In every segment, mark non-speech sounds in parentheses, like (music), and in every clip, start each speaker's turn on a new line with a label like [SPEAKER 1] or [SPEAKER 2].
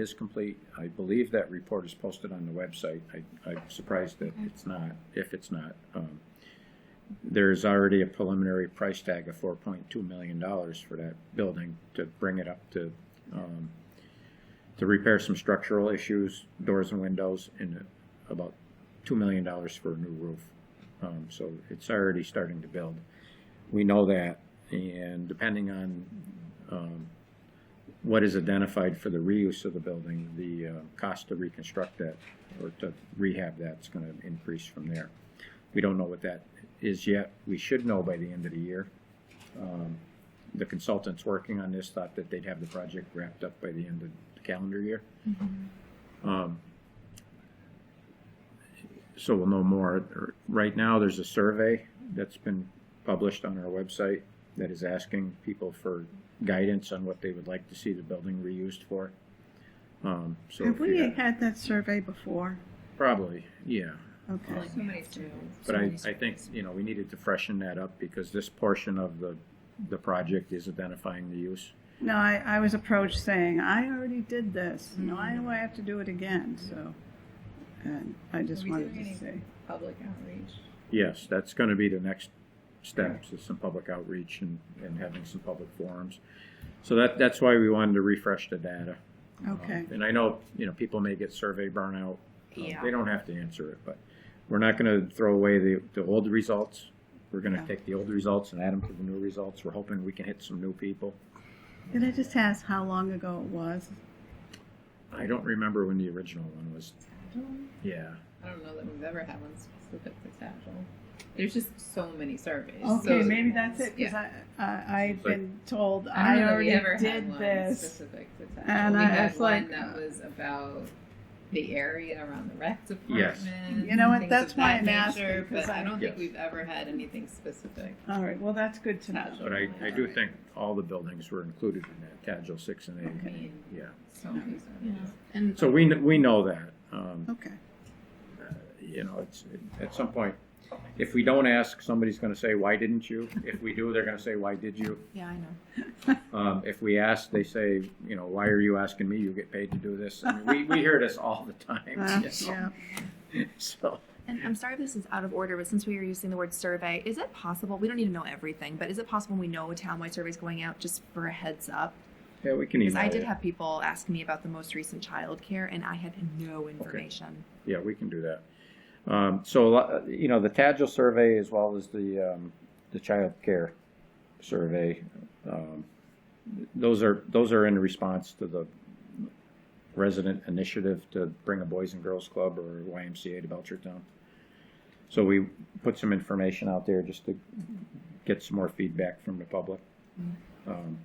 [SPEAKER 1] is complete. I believe that report is posted on the website. I, I'm surprised that it's not, if it's not. Um, There is already a preliminary price tag of four point two million dollars for that building to bring it up to, um, to repair some structural issues, doors and windows, and about two million dollars for a new roof. Um, so it's already starting to build. We know that, and depending on, um, what is identified for the reuse of the building, the uh, cost to reconstruct that or to rehab that's going to increase from there. We don't know what that is yet. We should know by the end of the year. Um, The consultants working on this thought that they'd have the project wrapped up by the end of the calendar year.
[SPEAKER 2] Mm-hmm.
[SPEAKER 1] Um, So we'll know more. Right now, there's a survey that's been published on our website that is asking people for guidance on what they would like to see the building reused for. Um, so
[SPEAKER 2] Have
[SPEAKER 1] if you
[SPEAKER 2] we
[SPEAKER 1] got-
[SPEAKER 2] had that survey before?
[SPEAKER 1] Probably, yeah.
[SPEAKER 2] Okay.
[SPEAKER 3] So many do.
[SPEAKER 1] But I, I think, you know, we needed to freshen that up because this portion of the, the project is identifying the use.
[SPEAKER 2] No, I, I was approached saying, I already did this. No, I know I have to do it again, so. And I just
[SPEAKER 3] Are we
[SPEAKER 2] wanted
[SPEAKER 3] doing
[SPEAKER 2] to
[SPEAKER 3] any-
[SPEAKER 2] say,
[SPEAKER 3] Public outreach.
[SPEAKER 1] Yes, that's gonna be the next steps, is some public outreach and, and having some public forums. So that, that's why we wanted to refresh the data. Um,
[SPEAKER 2] okay,
[SPEAKER 1] And I know, you know, people may get survey burnout. Uh,
[SPEAKER 3] Yeah.
[SPEAKER 1] They don't have to answer it, but we're not gonna throw away the, the old results. We're gonna
[SPEAKER 2] Yeah.
[SPEAKER 1] take the old results and add them to the new results. We're hoping we can hit some new people.
[SPEAKER 2] did I just ask how long ago it was?
[SPEAKER 1] I don't remember when the original one was, yeah.
[SPEAKER 3] I don't know that we've ever had one specifically sagittal. There's just so many surveys.
[SPEAKER 2] Okay,
[SPEAKER 3] so-
[SPEAKER 2] maybe that's it, because
[SPEAKER 3] Yeah.
[SPEAKER 2] I, I, I've
[SPEAKER 1] Like-
[SPEAKER 2] been told
[SPEAKER 3] I
[SPEAKER 2] I
[SPEAKER 3] don't know that we
[SPEAKER 2] already
[SPEAKER 3] ever had
[SPEAKER 2] did
[SPEAKER 3] one
[SPEAKER 2] this.
[SPEAKER 3] specific to sagittal.
[SPEAKER 2] And
[SPEAKER 3] we
[SPEAKER 2] I
[SPEAKER 3] had
[SPEAKER 2] was
[SPEAKER 3] one
[SPEAKER 2] like,
[SPEAKER 3] that
[SPEAKER 2] uh,
[SPEAKER 3] was about the area around the rec department.
[SPEAKER 1] Yes.
[SPEAKER 2] You know what,
[SPEAKER 3] things
[SPEAKER 2] that's
[SPEAKER 3] of
[SPEAKER 2] why
[SPEAKER 3] that
[SPEAKER 2] I'm asking,
[SPEAKER 3] nature,
[SPEAKER 2] 'cause
[SPEAKER 3] But
[SPEAKER 2] I-
[SPEAKER 3] I don't
[SPEAKER 1] Yes.
[SPEAKER 3] think we've ever had anything specific.
[SPEAKER 2] All right, well, that's good to know.
[SPEAKER 1] But I, I do think all the buildings were included in that, Tadjil six and
[SPEAKER 3] I
[SPEAKER 1] eight,
[SPEAKER 3] mean,
[SPEAKER 1] yeah.
[SPEAKER 3] so many surveys.
[SPEAKER 4] And
[SPEAKER 1] So we, kn- we know that, um,
[SPEAKER 3] (laughs)
[SPEAKER 2] Okay,
[SPEAKER 1] you know, it's, at some point, if we don't ask, somebody's gonna say, why didn't you? If we do, they're gonna say, why did you?
[SPEAKER 4] yeah, I know.
[SPEAKER 1] Um, if we ask, they say, you know, why are you asking me? You get paid to do this. I mean, we, we hear this all the
[SPEAKER 2] Uh,
[SPEAKER 1] time,
[SPEAKER 3] (laughs)
[SPEAKER 2] yeah.
[SPEAKER 1] so.
[SPEAKER 4] And I'm sorry if this is out of order, but since we were using the word survey, is it possible? We don't need to know everything, but is it possible we know a townwide survey is going out just for a heads up?
[SPEAKER 1] Yeah, we can
[SPEAKER 4] Because
[SPEAKER 1] email
[SPEAKER 4] I did
[SPEAKER 1] you.
[SPEAKER 4] have people ask me about the most recent childcare, and I had no information.
[SPEAKER 1] Yeah, we can do that. Um, so, a lot- uh, you know, the Tagil survey as well as the, um, the child care survey, um, those are, those are in response to the resident initiative to bring a Boys and Girls Club or YMCA to Belchertown. So we put some information out there just to get some more feedback from the public. Um,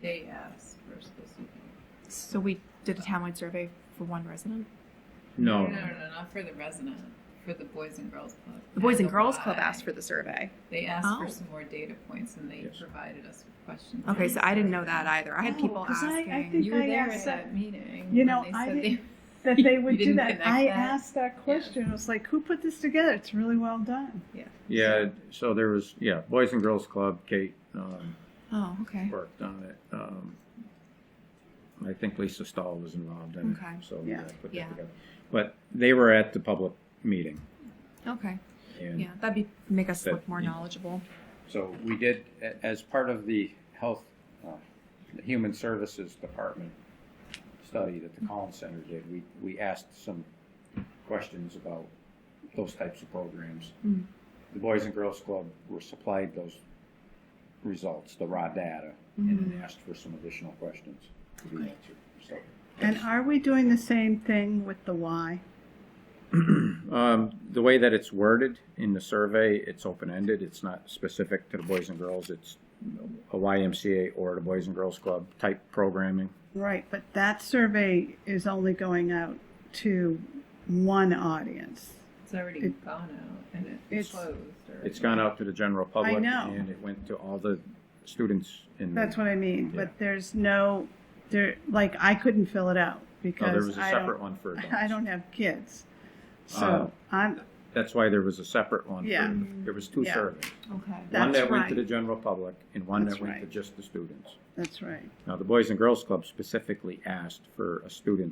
[SPEAKER 3] They asked for specific.
[SPEAKER 4] So we did a townwide survey for one resident.
[SPEAKER 1] no,
[SPEAKER 3] No, no, no, not for the resident, for the Boys and Girls Club.
[SPEAKER 4] The Boys and Girls
[SPEAKER 3] Y.
[SPEAKER 4] Club asked for the survey.
[SPEAKER 3] They asked
[SPEAKER 4] Oh.
[SPEAKER 3] for some more data points, and they
[SPEAKER 1] Yes.
[SPEAKER 3] provided us with questions.
[SPEAKER 4] Okay, so I didn't know that either. I had
[SPEAKER 2] No,
[SPEAKER 4] people
[SPEAKER 2] 'cause I- I
[SPEAKER 4] asking.
[SPEAKER 2] think-
[SPEAKER 3] You were
[SPEAKER 2] I
[SPEAKER 3] there
[SPEAKER 2] asked
[SPEAKER 3] at
[SPEAKER 2] that-
[SPEAKER 3] that meeting.
[SPEAKER 2] You
[SPEAKER 3] when
[SPEAKER 2] know,
[SPEAKER 3] they
[SPEAKER 2] I
[SPEAKER 3] said they- (laughs)
[SPEAKER 2] didn't- That they
[SPEAKER 3] You
[SPEAKER 2] would do
[SPEAKER 3] didn't
[SPEAKER 2] that.
[SPEAKER 3] connect
[SPEAKER 2] I
[SPEAKER 3] that?
[SPEAKER 2] asked that question. It was like, who put this together? It's really well done.
[SPEAKER 1] yeah, so there was, yeah, Boys and Girls Club, Kate, um,
[SPEAKER 4] oh, okay.
[SPEAKER 1] worked on it. Um, I think Lisa Stahl was involved in
[SPEAKER 4] Okay.
[SPEAKER 1] it, so
[SPEAKER 2] Yeah.
[SPEAKER 1] yeah, put
[SPEAKER 4] Yeah.
[SPEAKER 1] that together. But they were at the public meeting,
[SPEAKER 4] Okay.
[SPEAKER 1] and
[SPEAKER 4] Yeah, that'd be make us
[SPEAKER 1] That-
[SPEAKER 4] look more
[SPEAKER 1] yeah.
[SPEAKER 4] knowledgeable.
[SPEAKER 1] so we did a- as part of the health, uh, the human services department study that the Collins Center did. We we asked some questions about those types of programs.
[SPEAKER 4] Mm.
[SPEAKER 1] The Boys and Girls Club were supplied those results, the raw data, and then asked for some additional questions to be answered. So.
[SPEAKER 2] And are we doing the same thing with the why?
[SPEAKER 1] Um, the way that it's worded in the survey, it's open-ended, it's not specific to the boys and girls, it's a YMCA or the Boys and Girls Club type programming.
[SPEAKER 2] Right, but that survey is only going out to one audience.
[SPEAKER 3] It's already
[SPEAKER 2] It-
[SPEAKER 3] gone out and
[SPEAKER 2] It's-
[SPEAKER 3] it's closed. Or
[SPEAKER 1] It's gone out to the general public.
[SPEAKER 2] know.
[SPEAKER 1] And it went to all the students in.
[SPEAKER 2] That's what I mean.
[SPEAKER 1] Yeah.
[SPEAKER 2] But there's no, there, like, I couldn't fill it out
[SPEAKER 1] No, there
[SPEAKER 2] because
[SPEAKER 1] was a
[SPEAKER 2] I don't-
[SPEAKER 1] separate one for adults.
[SPEAKER 2] (laughs) I don't have kids.
[SPEAKER 1] Uh,
[SPEAKER 2] So I'm,
[SPEAKER 1] That's why there was a separate one. for-
[SPEAKER 2] Yeah.
[SPEAKER 1] There was two
[SPEAKER 2] Yeah.
[SPEAKER 1] surveys,
[SPEAKER 4] Okay.
[SPEAKER 1] one
[SPEAKER 2] That's
[SPEAKER 1] that went to
[SPEAKER 2] right.
[SPEAKER 1] the general public and one that
[SPEAKER 2] That's
[SPEAKER 1] went to
[SPEAKER 2] right.
[SPEAKER 1] just the students.
[SPEAKER 2] that's right.
[SPEAKER 1] Now, the Boys and Girls Club specifically asked for a student